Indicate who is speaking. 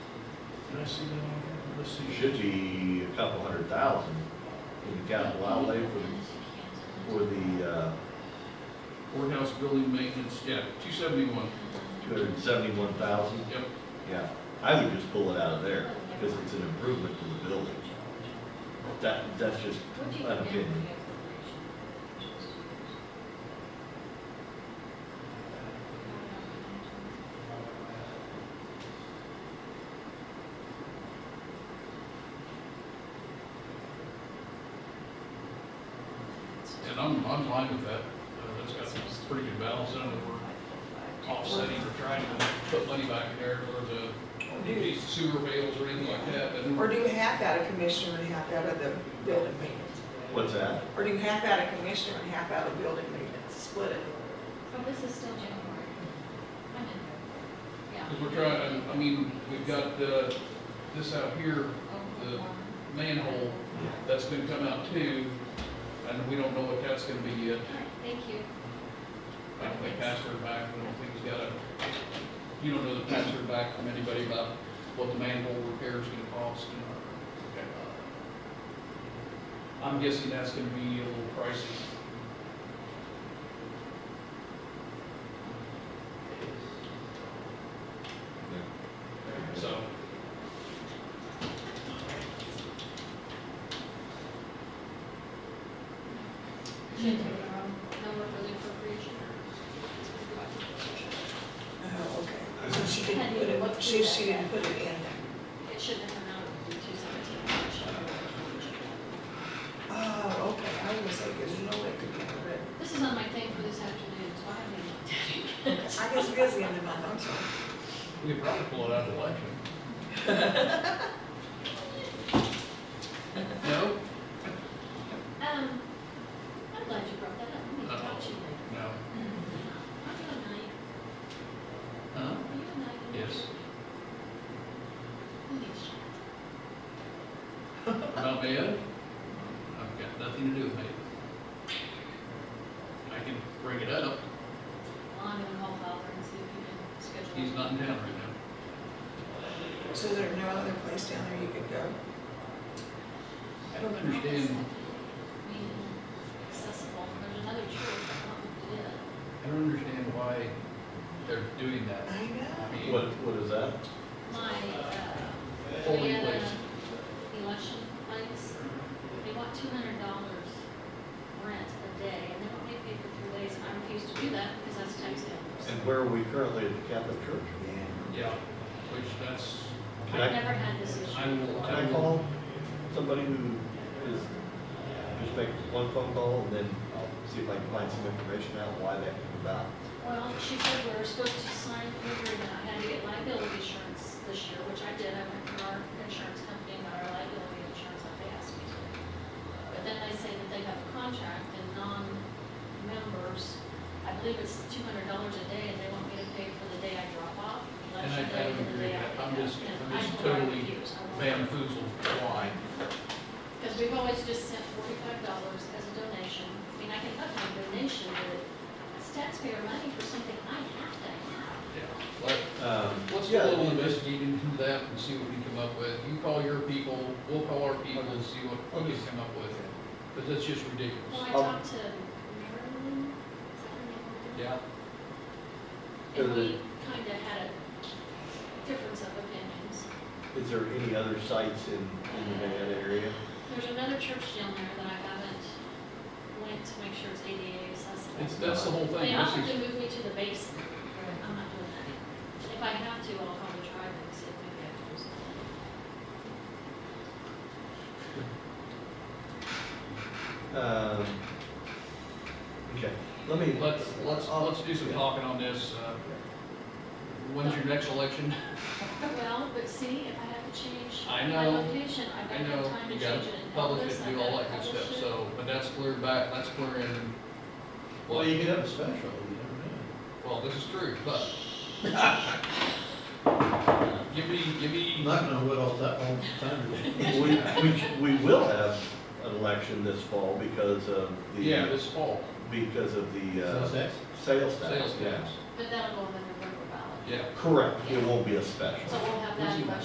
Speaker 1: I see that on here? Let's see.
Speaker 2: Should be a couple hundred thousand in the capital outlay for the, for the, uh,
Speaker 3: Courthouse building maintenance, yeah, two seventy-one,
Speaker 2: two hundred and seventy-one thousand.
Speaker 3: yep.
Speaker 2: Yeah, I would just pull it out of there, because it's an improvement to the building. That, that's just an opinion.
Speaker 3: And I'm, I'm fine with that, Uh, that's got some pretty good balance in it, we're offsetting, we're trying to put money back in there for the, any sewer bills or anything like that, but.
Speaker 4: Or do you half out of commissioner and half out of the building maintenance?
Speaker 2: What's that?
Speaker 4: Or do you half out of commissioner and half out of building maintenance, split it?
Speaker 5: But this is still January. I'm in there. Yeah.
Speaker 3: Because we're trying, I mean, we've got uh, this out here, the manhole, that's gonna come out too, and we don't know what that's gonna be yet.
Speaker 5: All right, Thank you.
Speaker 3: I don't think password back, I don't think he's got a, you don't know the password back from anybody about what the manhole repair is gonna cost. and- Uh, I'm guessing that's gonna be a little pricey. So.
Speaker 5: Should do your own number for the appropriation.
Speaker 4: Oh, okay. So she didn't put it, she, she didn't put it in there.
Speaker 5: It shouldn't have come out of the two seventeen.
Speaker 4: Oh, okay, I was gonna say, because you know it could be, but
Speaker 5: This is on my thing for this afternoon, so I haven't even looked at it.
Speaker 4: I guess busy in the month, I'm sorry.
Speaker 3: We could probably pull it out of the election. No?
Speaker 5: Um, I'm glad you brought that up. I'm gonna talk to you later.
Speaker 3: No.
Speaker 5: Are you a knight?
Speaker 3: Huh?
Speaker 5: Are you a knight?
Speaker 3: Yes.
Speaker 5: Who needs you?
Speaker 3: About Mayo? I've got nothing to do with Mayo. I can bring it up,
Speaker 5: Well, I'm gonna call Fowler and see if he can schedule.
Speaker 3: he's not in town right now.
Speaker 4: So is there no other place down there you could go?
Speaker 3: I don't understand,
Speaker 5: Being accessible, there's another church, I don't know who it is.
Speaker 3: I don't understand why they're doing that.
Speaker 4: I
Speaker 3: I
Speaker 4: know.
Speaker 3: mean,
Speaker 2: What, what is that?
Speaker 5: My, uh,
Speaker 3: Polling
Speaker 5: Vienna
Speaker 3: place.
Speaker 5: election place, they want two hundred dollars rent a day, and they don't pay paid for three days, and I refuse to do that because that's tax dollars.
Speaker 2: And where are we currently at the Catholic Church?
Speaker 3: Yeah, which that's,
Speaker 2: Can
Speaker 5: I've
Speaker 2: I,
Speaker 5: never had this issue.
Speaker 3: I will,
Speaker 2: can
Speaker 3: I
Speaker 2: I
Speaker 3: will,
Speaker 2: call somebody who is, just make one phone call and then I'll see if I can find some information out why that came about?
Speaker 5: Well, she said we were supposed to sign an agreement, I had to get liability insurance this year, which I did, I went to our insurance company and got our liability insurance, like they asked me to. But then they say that they have a contract and non-members, I believe it's two hundred dollars a day, and they want me to pay for the day I drop off,
Speaker 3: and I
Speaker 5: election day,
Speaker 3: don't
Speaker 5: and the
Speaker 3: agree
Speaker 5: day
Speaker 3: with
Speaker 5: I
Speaker 3: that,
Speaker 5: pick up.
Speaker 3: I'm just,
Speaker 5: And
Speaker 3: I'm just
Speaker 5: I
Speaker 3: totally
Speaker 5: refuse. I won't.
Speaker 3: bamboozled why.
Speaker 5: Because we've always just sent forty-five dollars as a donation. I mean, I can up my donation, but it's taxpayer money for something I have to have.
Speaker 3: Yeah. Like,
Speaker 2: Um,
Speaker 3: Let's do
Speaker 2: yeah,
Speaker 3: a little investigating into that and see what we come up with. You call your people, we'll call our people and see what we can come up with. Because that's just
Speaker 5: Well,
Speaker 3: ridiculous.
Speaker 5: I talked to Marilyn, is that her name?
Speaker 3: Yeah.
Speaker 5: And we kind of had a difference of opinions.
Speaker 2: Is there any other sites in, in the Nevada area?
Speaker 5: There's another church down there that I haven't went to make sure it's ADA
Speaker 3: It's,
Speaker 5: accessible.
Speaker 3: that's the whole thing.
Speaker 5: They
Speaker 3: This
Speaker 5: often
Speaker 3: is-
Speaker 5: move me to the basement, but I'm not doing that. If I have to, I'll probably drive and see if maybe I can do something.
Speaker 2: Um, okay, let me.
Speaker 3: Let's, let's,
Speaker 2: I'll-
Speaker 3: let's do some
Speaker 2: yeah.
Speaker 3: talking on this. Uh, When's your next election?
Speaker 5: Well, but see, if I have to change
Speaker 3: I
Speaker 5: my
Speaker 3: know.
Speaker 5: location, I've
Speaker 3: I
Speaker 5: got to have
Speaker 3: know
Speaker 5: time to
Speaker 3: you
Speaker 5: change
Speaker 3: got
Speaker 5: it and all
Speaker 3: public
Speaker 5: this,
Speaker 3: and
Speaker 5: I've
Speaker 3: do all
Speaker 5: got to
Speaker 3: that good stuff,
Speaker 5: publish it.
Speaker 3: so, but that's clear back, that's clear in.
Speaker 2: Well, you could have a special, you never know.
Speaker 3: Well, this is true, but. Give me, give me.
Speaker 6: Not gonna what all that all the time. is.
Speaker 2: We, we, we will have an election this fall because of the.
Speaker 3: Yeah, this fall,
Speaker 2: Because of the,
Speaker 6: So
Speaker 2: uh,
Speaker 6: that's-
Speaker 2: sales tax.
Speaker 3: sales
Speaker 2: yeah.
Speaker 3: tax.
Speaker 5: But that'll go in the November ballot.
Speaker 3: Yeah.
Speaker 2: Correct, it won't be a special.
Speaker 5: So we'll have that
Speaker 3: Where's he?
Speaker 5: question.